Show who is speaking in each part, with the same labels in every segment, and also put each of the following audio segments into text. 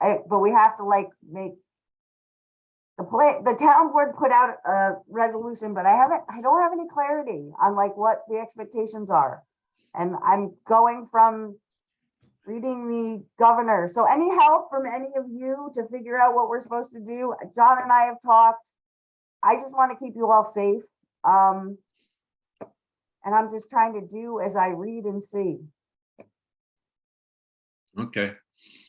Speaker 1: I, but we have to like make. The play, the town board put out a resolution, but I haven't, I don't have any clarity on like what the expectations are. And I'm going from reading the governor. So any help from any of you to figure out what we're supposed to do? John and I have talked. I just want to keep you all safe. Um. And I'm just trying to do as I read and see.
Speaker 2: Okay,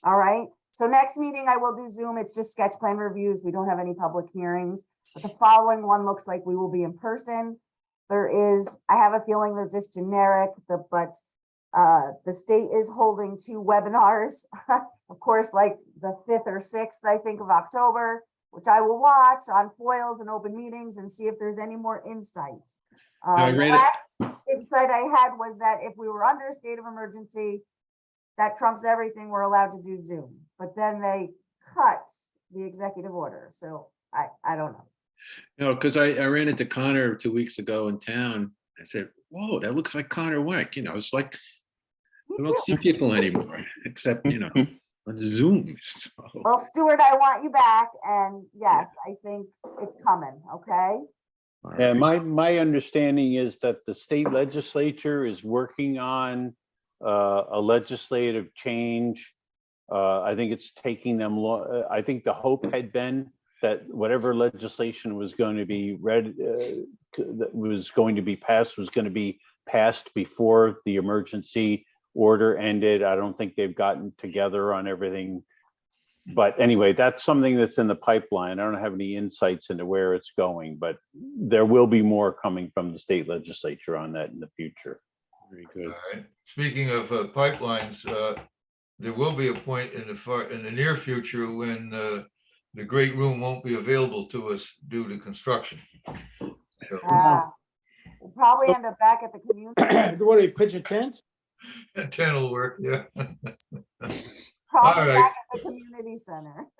Speaker 1: All right, so next meeting I will do Zoom. It's just sketch plan reviews. We don't have any public hearings. But the following one looks like we will be in person. There is, I have a feeling they're just generic, the- but uh, the state is holding two webinars. Of course, like the fifth or sixth, I think, of October, which I will watch on foils and open meetings and see if there's any more insight.
Speaker 2: I
Speaker 1: Uh, the
Speaker 2: read it.
Speaker 1: last Insight I had was that if we were under a state of emergency, that trumps everything, we're allowed to do Zoom, but then they cut the executive order, so I, I don't know.
Speaker 2: you know, because I, I ran into Connor two weeks ago in town. I said, whoa, that looks like Connor Wenck, you know, it's like, I
Speaker 1: Me
Speaker 2: don't
Speaker 1: too.
Speaker 2: see people anymore, except, you know, on Zoom. so.
Speaker 1: Well, Stuart, I want you back, and yes, I think it's coming, okay?
Speaker 2: All
Speaker 3: Yeah,
Speaker 2: right.
Speaker 3: my, my understanding is that the state legislature is working on uh, a legislative change. Uh, I think it's taking them, lo- uh, I think the hope had been that whatever legislation was going to be read, uh, to- that was going to be passed, was going to be passed before the emergency order ended. I don't think they've gotten together on everything. But anyway, that's something that's in the pipeline. I don't have any insights into where it's going, but there will be more coming from the state legislature on that in the future.
Speaker 2: Very good.
Speaker 4: All right. Speaking of uh, pipelines, uh, there will be a point in the far, in the near future when uh, the great room won't be available to us due to construction. So,
Speaker 1: Uh, We'll probably end up back at the community,
Speaker 5: What, do you pitch a tent?
Speaker 4: Ten will work, yeah.
Speaker 1: probably
Speaker 4: Alright.
Speaker 1: back at the community center.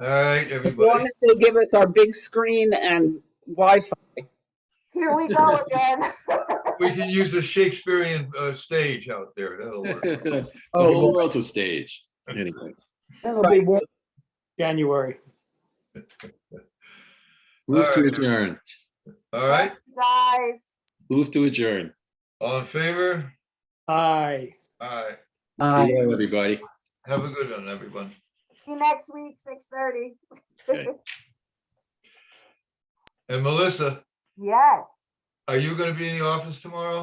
Speaker 4: All right,
Speaker 6: As long
Speaker 4: everybody.
Speaker 6: as they give us our big screen and Wi-Fi.
Speaker 1: Here we go again.
Speaker 4: We can use the Shakespearean uh, stage out there. That'll work.
Speaker 2: The
Speaker 3: Oh.
Speaker 2: whole world's a stage. Anyway,
Speaker 5: That'll be one, January.
Speaker 2: move to
Speaker 4: right.
Speaker 2: adjourn,
Speaker 4: All right,
Speaker 1: Guys,
Speaker 2: move to adjourn.
Speaker 4: all in favor?
Speaker 5: Aye.
Speaker 4: All right.
Speaker 3: Uh,
Speaker 6: Uh,
Speaker 2: Be well, Everybody.
Speaker 4: Have a good one, everyone.
Speaker 1: see you next week, six thirty.
Speaker 2: Okay.
Speaker 4: And Melissa,
Speaker 1: Yes,
Speaker 4: are you going to be in the office tomorrow?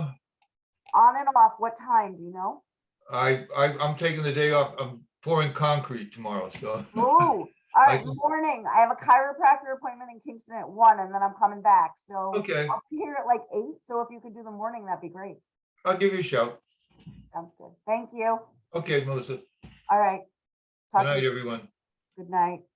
Speaker 1: on and off, what time, do you know?
Speaker 4: I, I, I'm taking the day off. I'm pouring concrete tomorrow, so.
Speaker 1: Oh, all right,
Speaker 4: can-
Speaker 1: morning. I have a chiropractor appointment in Kingston at one and then I'm coming back. So
Speaker 4: Okay,
Speaker 1: I'll be here at like eight. So if you could do the morning, that'd be great.
Speaker 4: I'll give you a shout.
Speaker 1: Sounds good. Thank you.
Speaker 4: Okay, Melissa.
Speaker 1: All right.
Speaker 4: Good
Speaker 1: Talk to you.
Speaker 4: night,
Speaker 1: soon.
Speaker 4: everyone.
Speaker 1: Good night.